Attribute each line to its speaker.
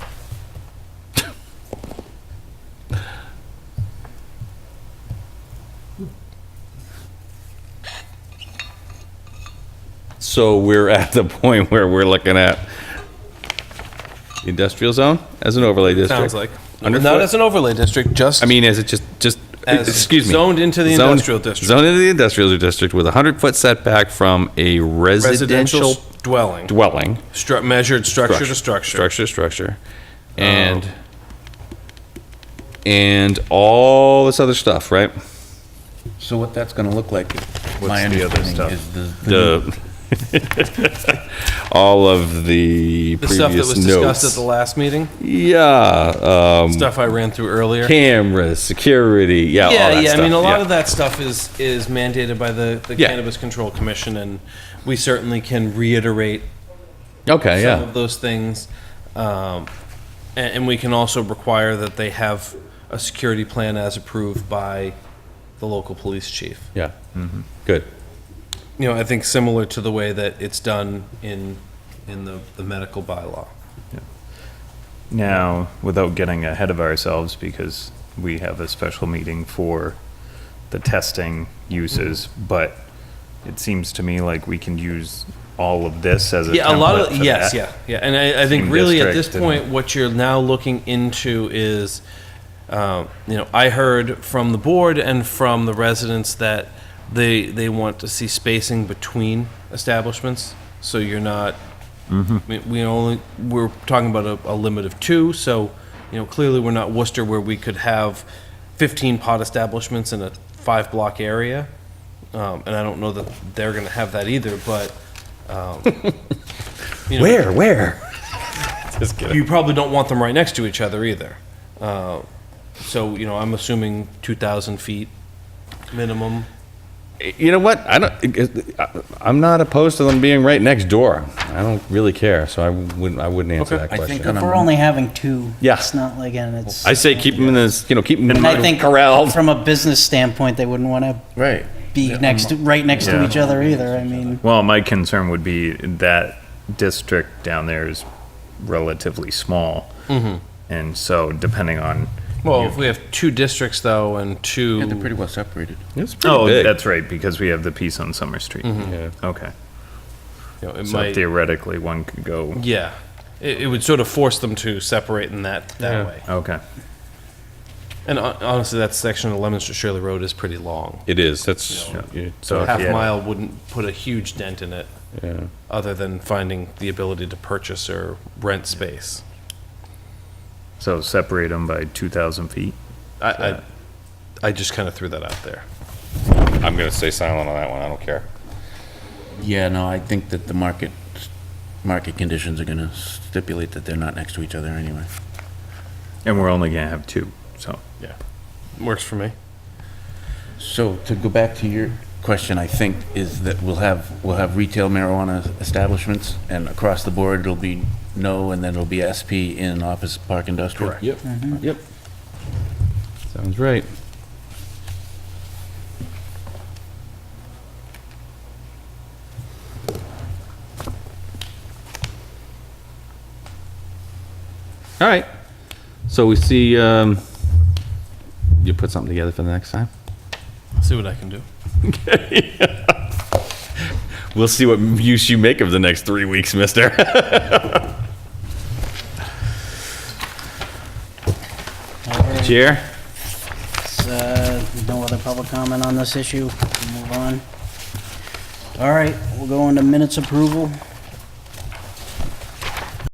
Speaker 1: So we're at the point where we're looking at industrial zone as an overlay district.
Speaker 2: Sounds like. Not
Speaker 1: Underfoot?
Speaker 2: as an overlay district, just.
Speaker 1: I mean, as it just, just,
Speaker 2: As
Speaker 1: excuse me.
Speaker 2: zoned into the
Speaker 1: Zoned-
Speaker 2: industrial district.
Speaker 1: Zoned into the industrial district with a 100-foot setback from a residential
Speaker 2: Residential dwelling,
Speaker 1: dwelling.
Speaker 2: stru- measured structure to structure. Oh.
Speaker 1: Structure to structure. And, and all this other stuff, right?
Speaker 3: So what that's gonna look like, my
Speaker 4: the other
Speaker 3: understanding
Speaker 4: stuff?
Speaker 3: is the.
Speaker 1: The, all of the
Speaker 2: Mm-hmm. The stuff that was
Speaker 1: previous
Speaker 2: discussed at
Speaker 1: notes.
Speaker 2: the last meeting,
Speaker 1: Yeah, um,
Speaker 2: stuff I ran through earlier.
Speaker 1: cameras, security, yeah, all
Speaker 2: Yeah,
Speaker 1: that
Speaker 2: yeah, I
Speaker 1: stuff,
Speaker 2: mean, a lot
Speaker 1: yeah.
Speaker 2: of that stuff is, is mandated by the, the
Speaker 1: Yeah.
Speaker 2: Cannabis Control Commission, and we certainly can reiterate
Speaker 1: Okay,
Speaker 2: some
Speaker 1: yeah,
Speaker 2: of those things. Um, and, and we can also require that they have a security plan as approved by the local police chief.
Speaker 1: yeah, good.
Speaker 2: You know, I think similar to the way that it's done in, in the, the medical bylaw.
Speaker 4: Now, without getting ahead of ourselves, because we have a special meeting for the testing uses,
Speaker 2: Mm-hmm.
Speaker 4: but it seems to me like we can use all of this as a
Speaker 2: Yeah, a lot of,
Speaker 4: template for
Speaker 2: yes,
Speaker 4: that.
Speaker 2: yeah, yeah. And I, I think
Speaker 4: Same
Speaker 2: really at this
Speaker 4: district
Speaker 2: point,
Speaker 4: and-
Speaker 2: what you're now looking into is, um, you know, I heard from the board and from the residents that they, they want to see spacing between establishments, so you're not, we- we only, we're talking about a, a limit of two, so, you know, clearly we're not Worcester where we could have 15 pot establishments in a five-block area. Um, And I don't know that they're going to have that either, but. um, you know,
Speaker 1: where?
Speaker 2: you probably don't want them right next to each other either. Uh, So, you know, I'm assuming 2,000 feet minimum.
Speaker 1: You know what? I don't. I- I'm not opposed to them being right next door. I don't really care, so I wouldn't. I wouldn't answer
Speaker 2: Okay.
Speaker 1: that
Speaker 3: I think
Speaker 1: question.
Speaker 3: on
Speaker 5: If we're
Speaker 3: a,
Speaker 5: only having two,
Speaker 1: Yeah.
Speaker 5: it's not like, and it's.
Speaker 1: I say keep them in this. You know, keep them
Speaker 5: And I think
Speaker 1: corralled.
Speaker 5: From a business standpoint, they wouldn't want to
Speaker 3: right,
Speaker 5: be next, to right next to
Speaker 4: Yeah.
Speaker 5: each other either, I mean.
Speaker 4: Well, my concern would be that district down there is relatively small.
Speaker 2: Mm-hmm.
Speaker 4: And so depending on.
Speaker 2: Well, if we have two districts though, and
Speaker 3: yeah, they're
Speaker 2: two,
Speaker 3: pretty well separated.
Speaker 1: It's pretty
Speaker 4: Oh,
Speaker 1: big.
Speaker 4: that's right, because we have the piece on Summer Street.
Speaker 1: Yeah.
Speaker 4: Okay.
Speaker 2: you know, Mm-hmm. it
Speaker 4: So
Speaker 2: might,
Speaker 4: theoretically, one could go,
Speaker 2: yeah. It, it would sort of force them to separate in that, that way.
Speaker 4: okay.
Speaker 2: And hon- honestly, that section of Lemonster Shirley Road is pretty long.
Speaker 1: It is. That's
Speaker 4: Yeah.
Speaker 1: so.
Speaker 2: Half
Speaker 4: yeah.
Speaker 2: mile wouldn't put a huge dent in it,
Speaker 1: Yeah.
Speaker 2: other than finding the ability to purchase or rent space.
Speaker 4: So separate them by 2,000 feet?
Speaker 2: I, I, I just kind of threw that out there.
Speaker 1: I'm gonna stay silent on that one. I don't care.
Speaker 3: Yeah, no, I think that the market, market conditions are gonna stipulate that they're not next to each other anyway.
Speaker 4: And we're only going to have two, so.
Speaker 2: Works for me.
Speaker 3: So to go back to your question, I think, is that we'll have, we'll have retail marijuana establishments, and across the board, it'll be no, and then it'll be SP in office park industrial.
Speaker 1: Yep. Yep. Sounds right. All right. So we see, um, you put something together for the next time?
Speaker 2: See what I can do.
Speaker 1: We'll see what use you make of the next three weeks, mister.
Speaker 5: all right,
Speaker 1: Chair?
Speaker 5: it's, uh, No other public comment on this issue, We'll move on. All right, we'll go into minutes approval.